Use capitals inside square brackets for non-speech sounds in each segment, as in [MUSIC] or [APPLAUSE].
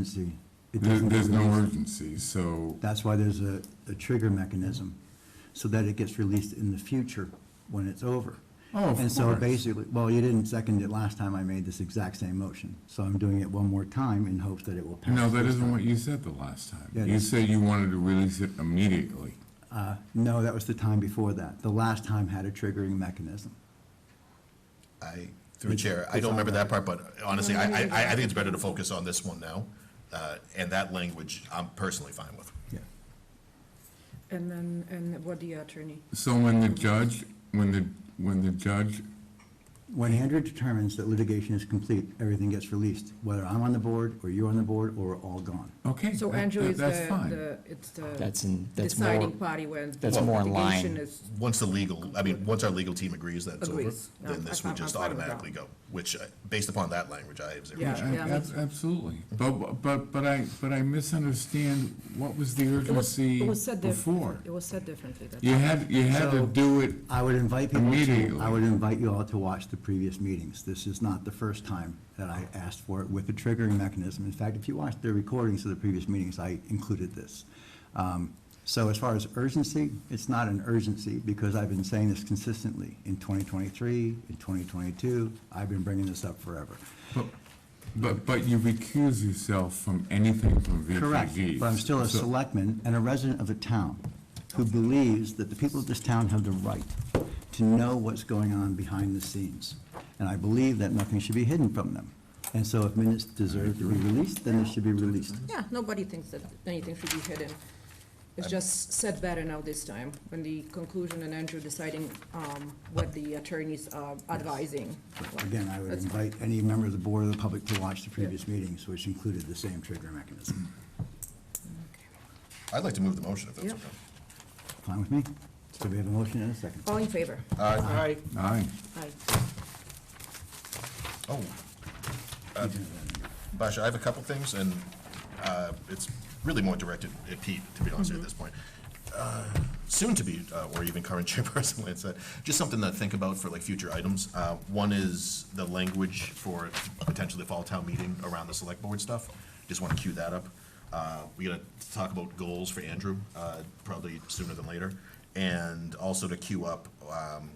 urgency. It There- doesn't- There's no urgency, so, That's why there's a, a trigger mechanism, so that it gets released in the future when it's over. Oh, of And so course. basically, well, you didn't second it last time I made this exact same motion, so I'm doing it one more time in hopes that it will pass. no, that this isn't time. what you said the last time. Yeah, You that's- said you wanted to release it immediately. Uh, no, that was the time before that. The last time had a triggering mechanism. I, through the chair, I don't remember that part, but honestly, I, I, I think it's better to focus on this one now. Uh, and that language, I'm personally fine with. Yeah. And then, and what the attorney? So when the judge, when the, when the judge, When Andrew determines that litigation is complete, everything gets released, whether I'm on the board, or you're on the board, or we're all gone. okay, So that- Andrew that- is the, that's fine. the, it's That's the in, that's more, deciding party when. that's the more in line. litigation is- Once the legal, I mean, once our legal team agrees that it's over, Agrees. No, then this I'm- would just I'm fine with automatically go, which, uh, based upon that language, I have zero Yeah. issue. Ab- ab- that's- Absolutely. But, but, but I, but I misunderstand what was the It was, urgency it was said before. differently. It was said differently. that's You had, you had to So- do it, I would invite people to, Immediately. I would invite you all to watch the previous meetings. This is not the first time that I asked for it with a triggering mechanism. In fact, if you watch the recordings of the previous meetings, I included this. Um, So as far as urgency, it's not an urgency because I've been saying this consistently in 2023, in 2022. I've been bringing this up forever. but, but, but you recuse yourself from anything from VPG. Correct, but I'm still a So- selectman and a resident of the town who believes that the people of this town have the right to know what's going on behind the scenes. And I believe that nothing should be hidden from them. And so if minutes deserve to be released, then they should be released. Yeah, nobody thinks that anything should be hidden. It's just said better now this time, when the conclusion and Andrew deciding um, what the attorneys are advising. Again, I would That's- invite any member of the board or the public to watch the previous meetings, which included the same trigger mechanism. I'd like to move the motion if that's Yeah. okay. Fine with me? So we have a motion and a second. All in favor? Aye. Aye. Aye. Oh. Uh, Basha, I have a couple things, and uh, it's really more directed at Pete, to be honest with you, at this point. Uh, Soon to be, uh, or even current [LAUGHS] chairperson, Lance said, just something to think about for like future items. Uh, One is the language for potentially the fall town meeting around the select board stuff. Just want to cue that up. Uh, We got to talk about goals for Andrew, uh, probably sooner than later. And also to cue up um,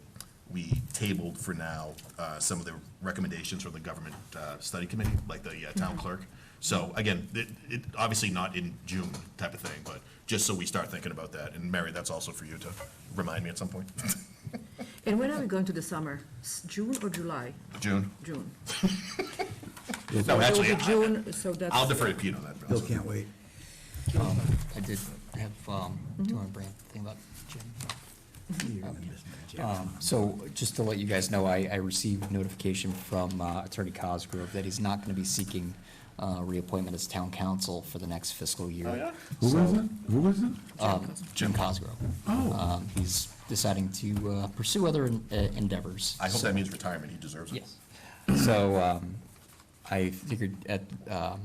we tabled for now uh, some of the recommendations from the government uh, study committee, like the uh, Mm-hmm. town clerk. So again, it, it, obviously not in June type of thing, but just so we start thinking about that. And Mary, that's also for you to remind me at some point. And when are we going to the summer? S- June or July? June? June. No, So actually, it'll be I- June, so that's. I'll defer to Pete on that. Bill can't wait. I did have, um, do you want to bring up the thing about Jim? You're gonna miss my chance. Um, So just to let you guys know, I, I received notification from uh, Attorney Cosgrove that he's not going to be seeking uh, reappointment as town council for the next fiscal year. Oh, yeah? Who So, was it? Who was it? um, Jim Cosgrove. Oh. Um, He's deciding to uh, pursue other en- uh, endeavors. I hope so- that means retirement. He deserves it. Yes. So um, I figured at, um,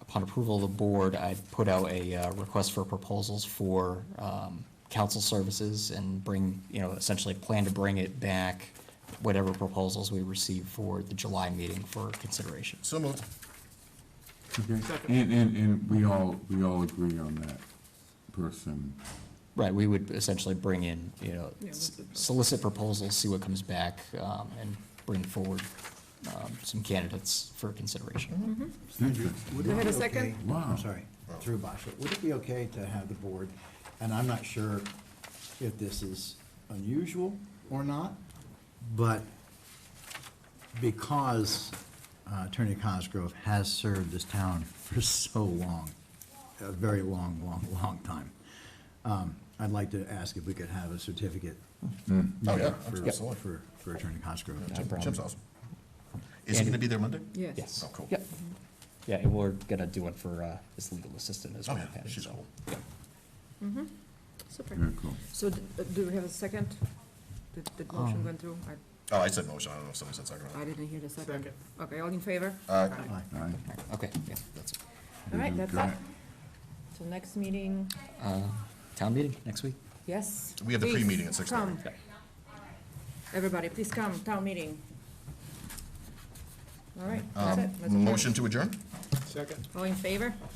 upon approval of the board, I'd put out a uh, request for proposals for um, council services and bring, you know, essentially plan to bring it back, whatever proposals we receive for the July meeting for consideration. So moved. Okay. And, and, and we all, we all agree on that person. Right, we would essentially bring in, you know, Yeah, s- what's the- solicit proposals, see what comes back, um, and bring forward um, some candidates for consideration. It's interesting. Would Do it I have be a second? okay- Wow. I'm sorry, through Basha. Would it be okay to have the board, and I'm not sure if this is unusual or not, but because uh, Attorney Cosgrove has served this town [LAUGHS] for so long, a very long, long, long time, um, I'd like to ask if we could have a certificate Oh, yeah, for- absolutely. for, for Attorney Cosgrove. Jim- problem. Jim's awesome. Is he going to be there Monday? Yes. Yes. Oh, cool. Yep. Yeah, and we're gonna do one for, uh, his legal assistant as Oh, well. yeah, Patty, she's so, cool. yeah. Super. Very cool. So d- uh, do we have a second? Did the Um. motion went through? I- Oh, I said motion. I don't know if somebody said second. or I not. Uh, didn't hear the second. Okay, all in favor? Aye. Aye. All right. Okay, yeah, that's it. All right, that's Got it. it. So next meeting, Uh, town meeting next week? yes? We have the please pre-meeting at 6:30. come. Everybody, please come, town meeting. All right, that's it. Um, Let's adjourn. Motion to adjourn? Second. All in favor?